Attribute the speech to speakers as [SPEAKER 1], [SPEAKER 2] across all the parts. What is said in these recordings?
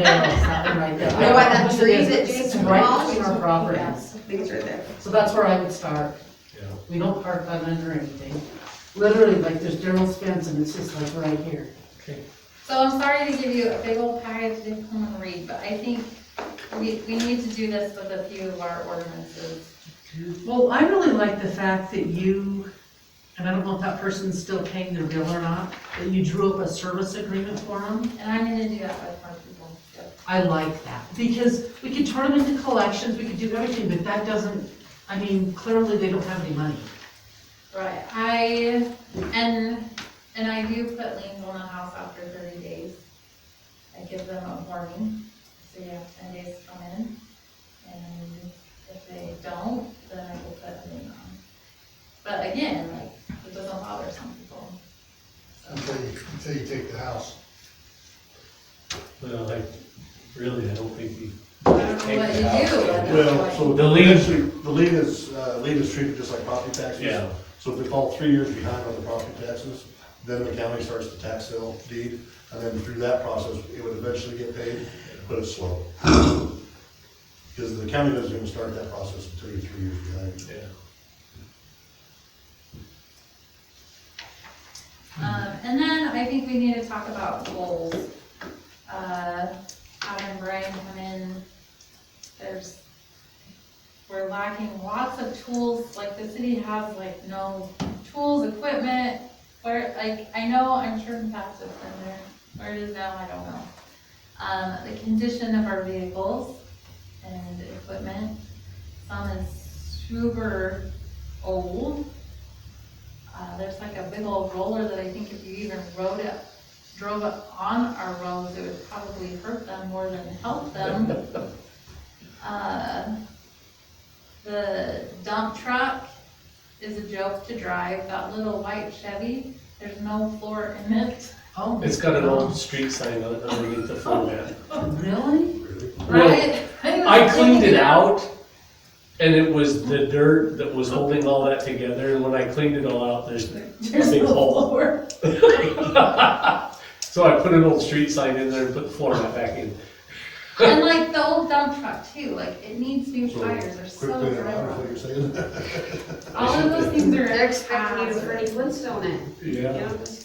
[SPEAKER 1] Daryl's, that one right there.
[SPEAKER 2] You know why that
[SPEAKER 1] It's
[SPEAKER 2] tree that
[SPEAKER 1] It's
[SPEAKER 2] Jason
[SPEAKER 1] right between
[SPEAKER 2] demolished?
[SPEAKER 1] our properties.
[SPEAKER 2] These are there.
[SPEAKER 1] So that's where I would start.
[SPEAKER 3] Yeah.
[SPEAKER 1] We don't park on under anything. Literally, like, there's Daryl's fence and it's just like right here.
[SPEAKER 4] So I'm sorry to give you a big old package to come and read, but I think we, we need to do this with a few of our ordinances.
[SPEAKER 5] Well, I really like the fact that you, and I don't know if that person's still paying their bill or not, that you drew up a service agreement for them.
[SPEAKER 4] And I'm gonna do that with more people.
[SPEAKER 5] I like that, because we could turn them into collections, we could do everything, but that doesn't, I mean, clearly they don't have any money.
[SPEAKER 4] Right, I, and, and I do put liens on the house after thirty days. I give them a warning, so you have ten days to come in, and if they don't, then I will put a lien on. But again, like, it doesn't bother some people.
[SPEAKER 6] until you, until you take the house.
[SPEAKER 3] Well, I, really, I don't think you.
[SPEAKER 4] I don't know what you do, but
[SPEAKER 7] Well,
[SPEAKER 4] that's
[SPEAKER 7] so
[SPEAKER 4] like,
[SPEAKER 7] the
[SPEAKER 3] The
[SPEAKER 7] lien
[SPEAKER 3] lien-
[SPEAKER 7] is, the lien is, uh, lien is treated just like property taxes.
[SPEAKER 3] Yeah.
[SPEAKER 7] So if they fall three years behind on the property taxes, then the county starts the tax sale deed, and then through that process, it would eventually get paid, but it's slow. Because the county doesn't even start that process until you're three years behind.
[SPEAKER 3] Yeah.
[SPEAKER 4] um, and then I think we need to talk about goals. Uh, having Brian come in, there's, we're lacking lots of tools, like the city has like no tools, equipment, where, like, I know, I'm sure in the past it's been there, where it is now, I don't know. Um, the condition of our vehicles and equipment, some is super old. Uh, there's like a big old roller that I think if you even rode it, drove it on our roads, it would probably hurt them more than help them. Uh, The dump truck is a joke to drive, that little white Chevy, there's no floor in it,
[SPEAKER 5] Oh,
[SPEAKER 3] It's got an old street sign on it underneath the floor mat.
[SPEAKER 5] really?
[SPEAKER 3] Well,
[SPEAKER 4] right? was
[SPEAKER 3] I cleaned
[SPEAKER 4] thinking
[SPEAKER 3] it
[SPEAKER 4] that.
[SPEAKER 3] out, and it was the dirt that was holding all that together, and when I cleaned it all out, there's a
[SPEAKER 4] There's
[SPEAKER 3] big
[SPEAKER 4] no
[SPEAKER 3] hole.
[SPEAKER 4] floor.
[SPEAKER 3] So I put an old street sign in there and put the floor mat back in.
[SPEAKER 4] And like the old dump truck too, like it needs new
[SPEAKER 7] So,
[SPEAKER 4] tires, they're so
[SPEAKER 7] Quickly, I don't know
[SPEAKER 4] dry.
[SPEAKER 7] what you're saying.
[SPEAKER 4] All of those things are.
[SPEAKER 2] They're expecting you to
[SPEAKER 4] hazards.
[SPEAKER 2] Freddie Flintstone it. You
[SPEAKER 3] Yeah.
[SPEAKER 2] know, this-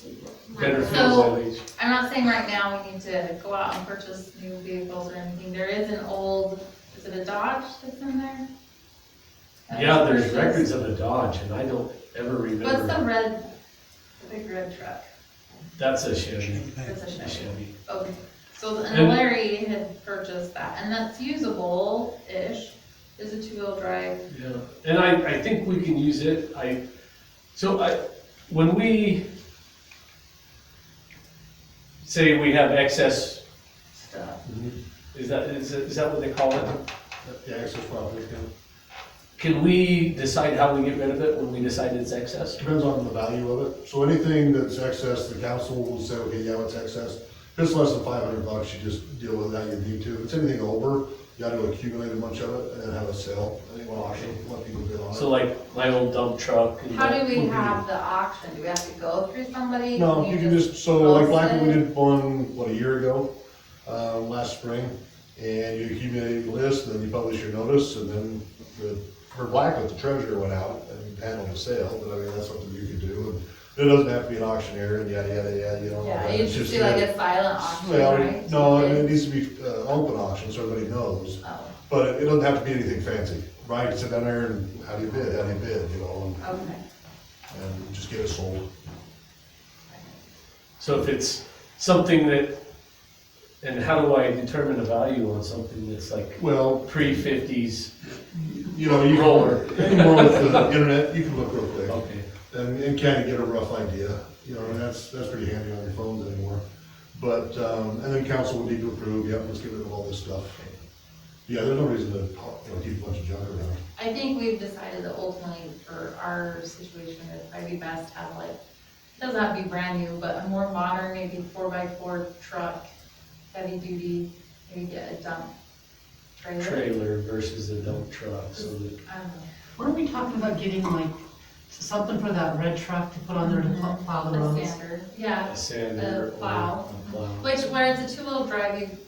[SPEAKER 3] Better
[SPEAKER 4] So-
[SPEAKER 3] feel my age.
[SPEAKER 4] I'm not saying right now we need to go out and purchase new vehicles or anything, there is an old, is it a Dodge that's in there?
[SPEAKER 3] Yeah, there's
[SPEAKER 4] Purchase.
[SPEAKER 3] records of a Dodge, and I don't ever
[SPEAKER 4] What's
[SPEAKER 3] remember.
[SPEAKER 4] the red, the big red truck,
[SPEAKER 3] That's a Chevy.
[SPEAKER 4] it's a Chevy.
[SPEAKER 3] Chevy.
[SPEAKER 4] Okay, so,
[SPEAKER 3] And-
[SPEAKER 4] and Larry had purchased that, and that's usable-ish, is a two-wheel drive.
[SPEAKER 3] Yeah, and I, I think we can use it, I, so I, when we say we have excess,
[SPEAKER 4] stuff.
[SPEAKER 3] is that, is, it- is that what they call it?
[SPEAKER 7] The access property, yeah.
[SPEAKER 3] Can we decide how we get rid of it when we decide it's excess?
[SPEAKER 7] depends on the value of it. So anything that's excess, the council will say, okay, yeah, it's excess. If it's less than five hundred bucks, you just deal with that, you need to. If it's anything over, you gotta accumulate a bunch of it and then have a sale, I think, well, auction, let people bid on it.
[SPEAKER 3] So like my old dump truck and
[SPEAKER 4] How do
[SPEAKER 3] that,
[SPEAKER 4] we have the auction, do we have to go through somebody?
[SPEAKER 7] No,
[SPEAKER 4] Can
[SPEAKER 7] you can just, so like
[SPEAKER 4] post
[SPEAKER 7] Blackwood, we
[SPEAKER 4] it?
[SPEAKER 7] did one, what, a year ago, uh, last spring, and you accumulate a list, and then you publish your notice, and then the, for Blackwood, the treasurer went out and handled the sale, but I mean, that's something you could do, and it doesn't have to be an auctioneer, and yada, yada, yada, you know.
[SPEAKER 4] Yeah,
[SPEAKER 7] and
[SPEAKER 4] you
[SPEAKER 7] it's
[SPEAKER 4] should do like
[SPEAKER 7] a-
[SPEAKER 4] a silent auction,
[SPEAKER 7] Well,
[SPEAKER 4] right?
[SPEAKER 7] no,
[SPEAKER 4] Okay.
[SPEAKER 7] it needs to be, uh, open auction, so everybody knows,
[SPEAKER 4] Oh,
[SPEAKER 7] but it doesn't have to be anything fancy, right, sit down there and, how do you bid, how do you bid, you know,
[SPEAKER 4] okay.
[SPEAKER 7] and, and just get it sold.
[SPEAKER 3] so if it's something that, and how do I determine a value on something that's like
[SPEAKER 7] Well,
[SPEAKER 3] pre-fifties?
[SPEAKER 7] You know, you can,
[SPEAKER 3] Roller.
[SPEAKER 7] anymore with the internet, you can look real quick
[SPEAKER 3] Okay.
[SPEAKER 7] and, and kind of get a rough idea, you know, and that's, that's pretty handy on your phones anymore. But, um, and then council would need to approve, yep, let's get rid of all this stuff. Yeah, there's no reason to, you know, keep a bunch of junk around.
[SPEAKER 4] I think we've decided that ultimately for our situation, it'd probably be best to have like, doesn't have to be brand new, but a more modern, maybe four by four truck, heavy duty, maybe get a dump trailer. Um,
[SPEAKER 3] Trailer versus a dump truck, so that
[SPEAKER 4] I don't know.
[SPEAKER 1] Weren't we talking about getting like something for that red truck to put on there to pl- plow the
[SPEAKER 4] A
[SPEAKER 1] roads?
[SPEAKER 4] standard, yeah.
[SPEAKER 3] a sander or.
[SPEAKER 4] plow.
[SPEAKER 3] a plow.
[SPEAKER 4] Which, where it's a two-wheel drive, you